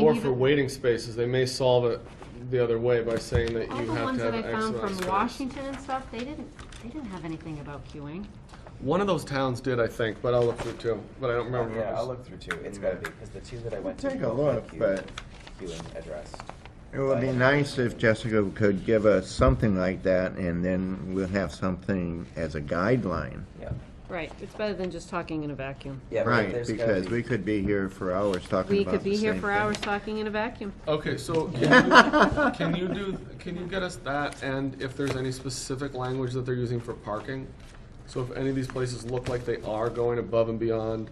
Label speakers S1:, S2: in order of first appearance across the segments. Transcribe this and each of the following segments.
S1: more
S2: even-
S1: for waiting spaces, they may solve it the other way by saying that
S2: All
S1: you
S2: the
S1: have
S2: ones
S1: to
S2: that
S1: have
S2: I
S1: X amount
S2: found
S1: of
S2: from
S1: space.
S2: Washington and stuff, they didn't, they didn't have anything about queuing.
S1: One of those towns did, I think, but I'll look through two, but I don't remember. if it
S3: Yeah,
S1: was-
S3: I'll look through two. It's gotta be, because the two that I went to.
S4: Take a
S3: both had
S4: look,
S3: queue-
S4: but-
S3: Queuing addressed.
S4: It would be nice if Jessica could give us something like that, and then we'll have something as a guideline.
S3: Yeah.
S2: Right, it's better than just talking in a vacuum.
S3: Yeah, but
S4: Right,
S3: there's gotta
S4: because
S3: be-
S4: we could be here for hours talking
S2: We
S4: about
S2: could
S4: the
S2: be here
S4: same
S2: for
S4: thing.
S2: hours talking in a vacuum.
S1: Okay, so can you, can you do, can you get us that and if there's any specific language that they're using for parking? So if any of these places look like they are going above and beyond,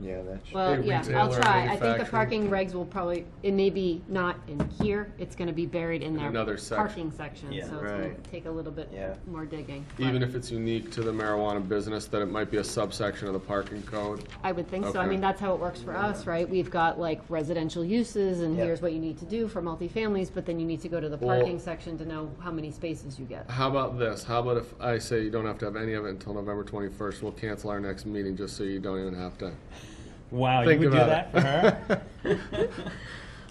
S4: Yeah, that's.
S2: Well,
S1: Big
S2: yeah, I'll
S1: retailer,
S2: try. I think the
S1: manufacturing.
S2: parking regs will probably, it may be not in here, it's gonna be buried in their
S1: another section.
S2: parking section, so
S3: Yeah.
S2: it's gonna
S4: Right.
S2: take a little bit
S3: Yeah.
S2: more digging. but
S1: even if it's unique to the marijuana business, that it might be a subsection of the parking code?
S2: I would think so. I
S1: Okay.
S2: mean, that's how it works for us, right? We've got like residential uses and
S3: Yeah.
S2: here's what you need to do for multifamilies, but then you need to go to the
S1: Well-
S2: parking section to know how many spaces you get.
S1: How about this? How about if I say you don't have to have any of it until November twenty-first? We'll cancel our next meeting just so you don't even have to.
S5: Wow,
S1: Think
S5: you would do
S1: about
S5: that
S1: it.
S5: for her?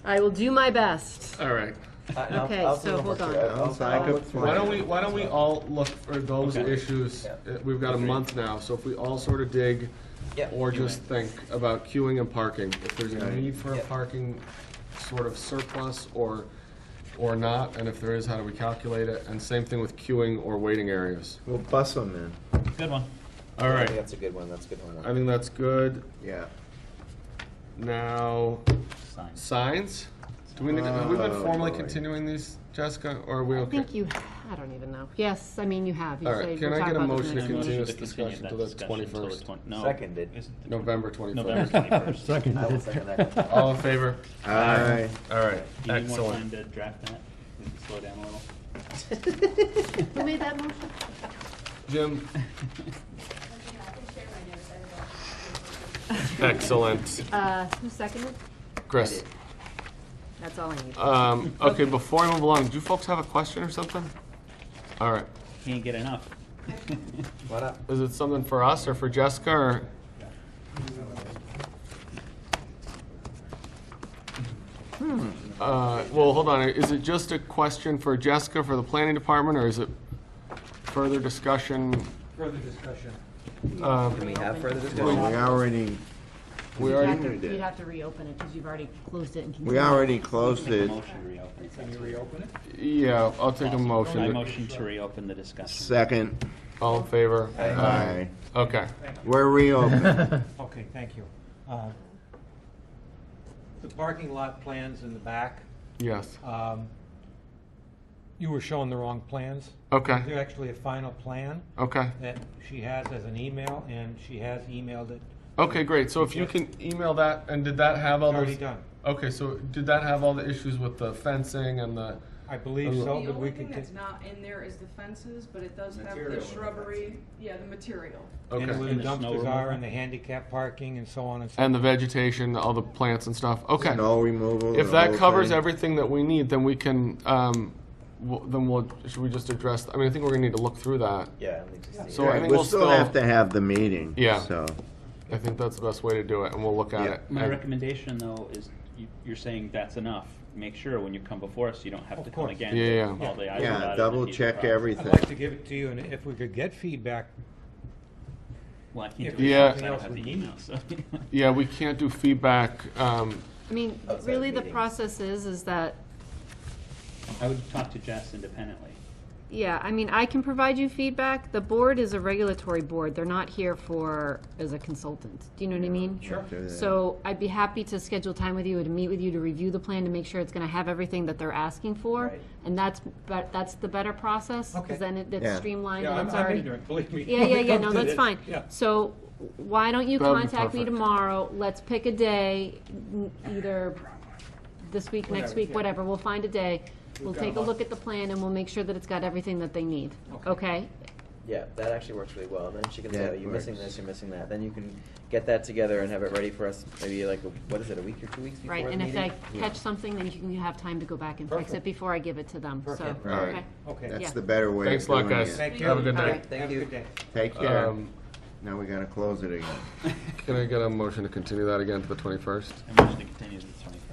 S2: I will do my best.
S1: All right.
S3: I- I'll-
S2: Okay,
S3: I'll do
S2: so
S3: them
S2: hold
S3: all
S2: on.
S3: through. I'll-
S4: Sounds like
S3: I'll
S4: a
S3: look through
S1: Why
S4: plan.
S3: it.
S1: don't we, why don't we all look for those
S5: Okay.
S1: issues?
S3: Yeah.
S1: Uh, We've got a month now, so if we all sort of dig
S3: Yeah.
S1: or just think about queuing and parking, if there's a
S4: Right.
S1: need for a
S3: Yeah.
S1: parking sort of surplus or, or not, and if there is, how do we calculate it? And same thing with queuing or waiting areas.
S4: We'll bus them in,
S5: Good one.
S1: All
S3: I
S1: right,
S3: think that's a good one, that's a good homework.
S1: I think that's good.
S4: yeah.
S1: Now,
S5: Sign.
S1: signs? Do we, neg- have we been
S4: Oh,
S1: formally
S4: boy.
S1: continuing these, Jessica, or are we
S2: I
S1: okay?
S2: think you, I don't even know. Yes, I mean, you have. You
S1: All right,
S2: said
S1: can
S2: we'll
S1: I
S2: talk
S1: get a
S2: about this
S1: motion to
S2: next
S1: continue?
S2: month.
S1: Continuous
S5: Motion to
S1: discussion
S5: continue
S1: till
S5: that
S1: the
S5: discussion till
S1: 21st.
S5: twen- No.
S3: Seconded.
S5: Isn't the-
S1: November
S5: November
S1: twenty-first.
S5: twenty-first.
S3: I will second that.
S1: All in favor?
S4: Aye.
S1: All right,
S5: Do you need more time
S1: excellent.
S5: to draft that? We can slow down a little.
S2: Who made that motion?
S1: Jim? Excellent.
S2: Uh, who seconded?
S1: Chris?
S2: That's all I need.
S1: Um, okay, before I move along, do you folks have a question or something? All right,
S5: Can't get enough.
S3: What up?
S1: is it something for us or for Jessica or? Uh, well, hold on, is it just a question for Jessica for the planning department or is it further discussion?
S6: Further discussion.
S3: Can we have further
S4: We
S3: discussion?
S4: already,
S1: We
S2: You'd
S1: already,
S2: have to-
S4: did.
S2: You'd have to reopen it, because you've already closed it and
S4: we
S2: continued.
S4: already closed
S5: Make a
S4: it.
S5: motion to reopen. if
S6: Can
S5: that's
S6: you reopen it?
S1: yeah, I'll take a
S5: possible. I
S1: motion.
S5: motion to reopen the discussion.
S4: Second,
S1: All in favor?
S4: aye.
S1: Okay.
S4: We're reopened.
S6: Okay, thank you. Uh, The parking lot plans in the back,
S1: Yes.
S6: um, you were showing the wrong plans.
S1: Okay.
S6: There's actually a final plan
S1: Okay.
S6: that she has as an email, and she has emailed it.
S1: Okay, great. So if you can email that, and did that have all
S6: It's
S1: those?
S6: already done.
S1: Okay, so did that have all the issues with the fencing and the?
S6: I believe
S1: The
S6: so, but
S7: The
S6: we
S7: only
S6: could
S7: thing
S6: get,
S7: that's not in there is the fences, but it does have
S3: Material
S7: the
S3: of the
S7: shrubbery, yeah, the material.
S6: and
S1: Okay.
S6: where the
S5: And the snow
S6: dumpsters are,
S5: removal.
S6: and the handicap parking, and so on and so.
S1: And the vegetation, all the plants and stuff. Okay.
S4: No removal.
S1: If
S4: the
S1: that
S4: whole
S1: covers
S4: thing.
S1: everything that we need, then we can. Um, w- then we'll. Should we just address? I mean, I think we're gonna need to look through that.
S3: Yeah. I think just the-
S1: So I
S4: Right,
S1: think
S4: We'll
S1: we'll
S4: still have to have the meeting,
S1: Yeah.
S4: so.
S1: I think that's the best way to do it, and we'll look at
S4: Yeah.
S1: it.
S5: My
S1: And-
S5: recommendation, though, is you- you're saying that's enough. Make sure when you come before us, you don't have
S6: Of
S5: to come
S6: course.
S5: again.
S1: Yeah,
S5: to
S1: yeah.
S5: all the I's dotted
S4: Yeah,
S5: and
S4: double
S5: T's
S4: check
S5: crossed.
S6: I'd
S4: everything.
S6: like to give it to you, and if we could get feedback,
S5: Well, I
S6: If
S5: can't do
S1: there's
S5: it because
S1: something
S5: I don't
S6: else
S5: have
S6: we
S5: the
S6: need.
S5: email, so.
S1: yeah, we can't do feedback. Um,
S2: I mean,
S3: Outside
S2: really, the
S3: meetings.
S2: process is, is that
S5: I would talk to Jess independently.
S2: Yeah, I mean, I can provide you feedback. The board is a regulatory board. They're not here for, as a consultant. Do you know what I mean? Sure.
S4: Do that.
S2: So I'd be happy to schedule time with you and meet with you to review the plan to make sure it's gonna have everything that they're asking for.
S3: Right.
S2: And that's, but that's the better process,
S6: Okay.
S2: because then it- it's
S4: Yeah.
S2: streamlined
S6: Yeah,
S2: and
S6: I'm
S2: it's
S6: I'm
S2: already.
S6: ignorant, believe me.
S2: Yeah,
S6: When
S2: yeah,
S6: it
S2: yeah,
S6: comes
S2: no,
S6: to
S2: that's
S6: this.
S2: fine.
S6: Yeah.
S2: So why don't you
S1: That'd be
S2: contact me
S1: perfect.
S2: tomorrow? Let's pick a day, n- either this week, next
S6: Whatever,
S2: week,
S6: yeah.
S2: whatever, we'll find a day. We'll
S6: got a
S2: take a
S6: month.
S2: look at the plan and we'll make sure that it's got everything that they need, okay?
S3: Yeah, that actually works really well. And then she can say,
S4: That
S3: oh, you're missing
S4: works.
S3: this, you're missing that. Then you can get that together and have it ready for us maybe like, a- what is it, a week or two weeks before
S2: Right,
S3: the
S2: and if
S3: meeting?
S2: I catch something, then you can have time to go back and fix it
S6: Perfect.
S2: before I give it to them, so,
S6: Perfect.
S4: All right.
S2: okay?
S6: Okay.
S2: Yeah.
S4: That's the better way
S1: Thanks
S4: of
S1: a lot,
S4: doing
S1: guys.
S4: it.
S6: Thank you.
S1: Have a good
S2: All
S1: night.
S2: right.
S3: Thank
S6: Have a
S3: you.
S6: good day.
S4: Take care.
S1: Um,
S4: Now we gotta close it again.
S1: can I get a motion to continue that again to the twenty-first?
S5: I motion to continue to the